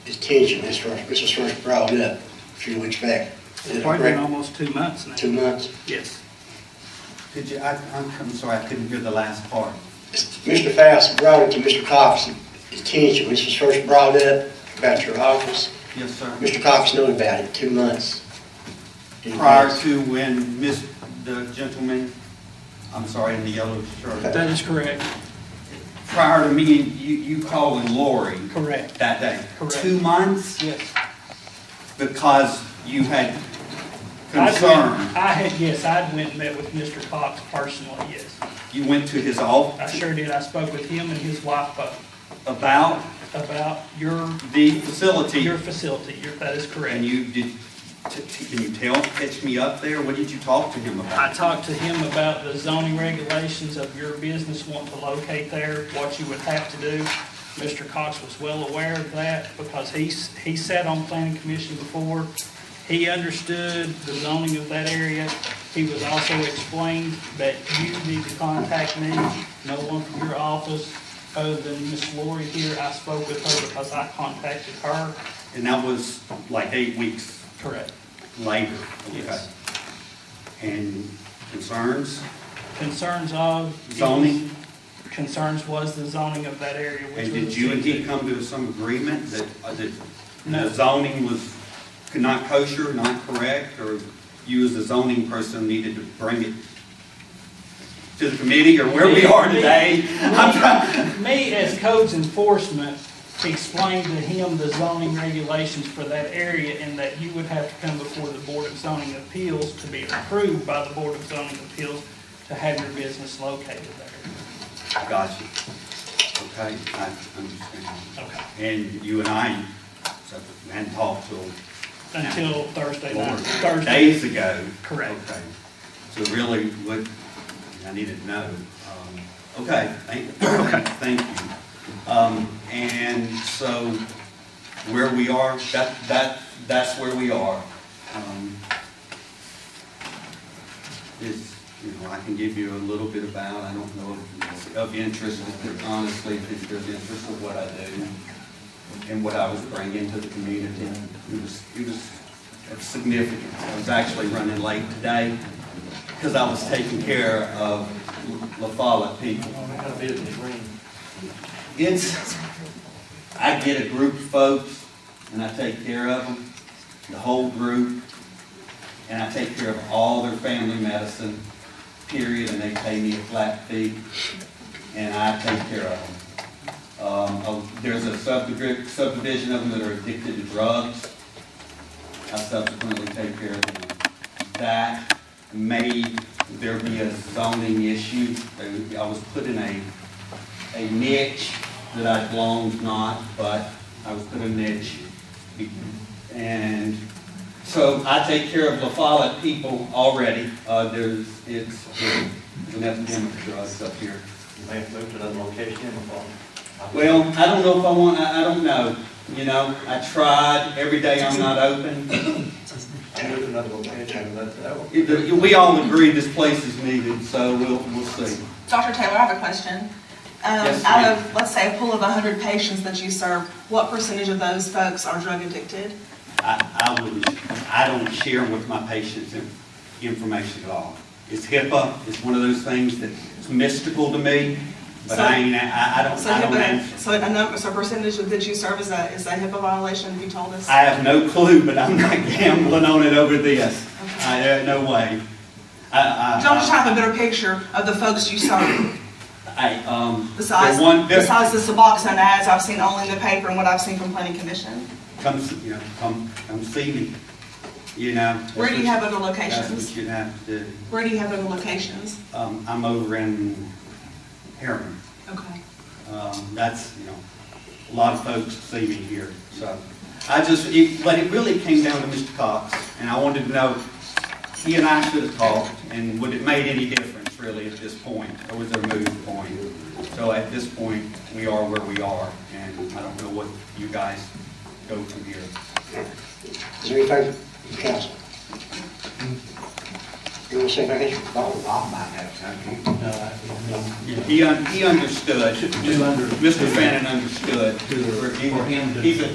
vacation, his first, this was first brought up a few weeks back. Is It's it probably been correct? almost two months now. Two months. Yes. Could you, I, I'm I'm sorry, I couldn't hear the last part. Mr. Faust brought it to Mr. Cox's attention, this was first brought up about your office. Yes, sir. Mr. Cox knew about it two months. in Prior advance. to when Miss, the gentleman, I'm sorry, in the yellow shirt, That is correct, prior to me, you, you calling Lori correct, that day? Correct. Two months yes. because you had I'd went- concern. I had, yes, I'd went and met with Mr. Cox personally, yes. You went to his I office sure did. I spoke with him and his wife both about about your, the facility your facility. Your- That is correct. and you did, t- t- can you tell, catch me up there? What did you talk to him I about? talked to him about the zoning regulations of your business wanting to locate there, what you would have to do. Mr. Cox was well aware of that because he's, he sat on planning commission before. He understood the zoning of that area. He was also explained that you need to contact me, no one from your office other than Miss Lori here. I spoke with her because I contacted her. And that was like eight weeks Correct. later. Yes. okay. And concerns, Concerns of. zoning? concerns was the zoning of that area, which And was. did you and he come to some agreement that, uh, that No. the zoning was not kosher, not correct, or you as the zoning person needed to bring it to the committee or where we are today? I'm trying, Me, as codes enforcement, explained to him the zoning regulations for that area and that you would have to come before the Board of Zoning Appeals to be approved by the Board of Zoning Appeals to have your business located there. got you. Okay, I understand. Okay. And you and I so, hadn't talked till Until Thursday four night, Thursday. days ago. Correct. Okay. So really, what, I needed to know. Um, Okay, thank, thank you. Um, And so where we are, that, that, that's where we are. Um, It's, you know, I can give you a little bit about, I don't know if it's of interest, if there- honestly, if there's interest of what I do and what I was bringing to the community. It was, it was significant. I was actually running late today because I was taking care of La Follette people. It's, I get a group of folks and I take care of them, the whole group, and I take care of all their family medicine, period, and they pay me a flat fee, and I take care of them. Um, uh, There's a subdivi- subdivision of them that are addicted to drugs. I subsequently take care of them. That may, there be a zoning issue. They- I was put in a, a niche that I belonged not, but I was put in a niche. And so I take care of La Follette people already. Uh, There's, it's, it's an epidemic of drugs up here. You may have moved to another location in the fall. Well, I don't know if I want, I, I don't know, you know, I tried, every day I'm not open. I moved to another location, uh, that's, that one. It- the- We all agree this place is needed, so we'll, we'll see. Dr. Taylor, I have a question. Um, Yes, Out ma'am. of, let's say, a pool of 100 patients that you serve, what percentage of those folks are drug addicted? I, I wouldn't, I don't share with my patients in- information at all. It's HIPAA, it's one of those things that's mystical to me, but I ain't, I, I don't, So I don't HIPAA, answer. so a number, so a percentage of- that you serve is a, is a HIPAA violation, if you told us? I have no clue, but I'm not gambling on it over this. I, uh, no way. I, I. Don't just have a better picture of the folks you serve, I, um. besides, the one- besides the Suboxone ads I've seen only in the paper and what I've seen from planning commission? come, see- you know, come, come see me, you know. Where do you have other That's locations? what you have to, do. Where do you have other locations? um, I'm over in Harriman, Okay. um, that's, you know, a lot of folks see me here, so. I just, it, but it really came down to Mr. Cox, and I wanted to know, he and I should have talked, and would it made any difference really at this point, or was there a move point? So at this point, we are where we are, and I don't know what you guys go from here. Is there anything from the council? You want to say anything? He, un- he understood, Mr. Fannin understood. For him to- He's a-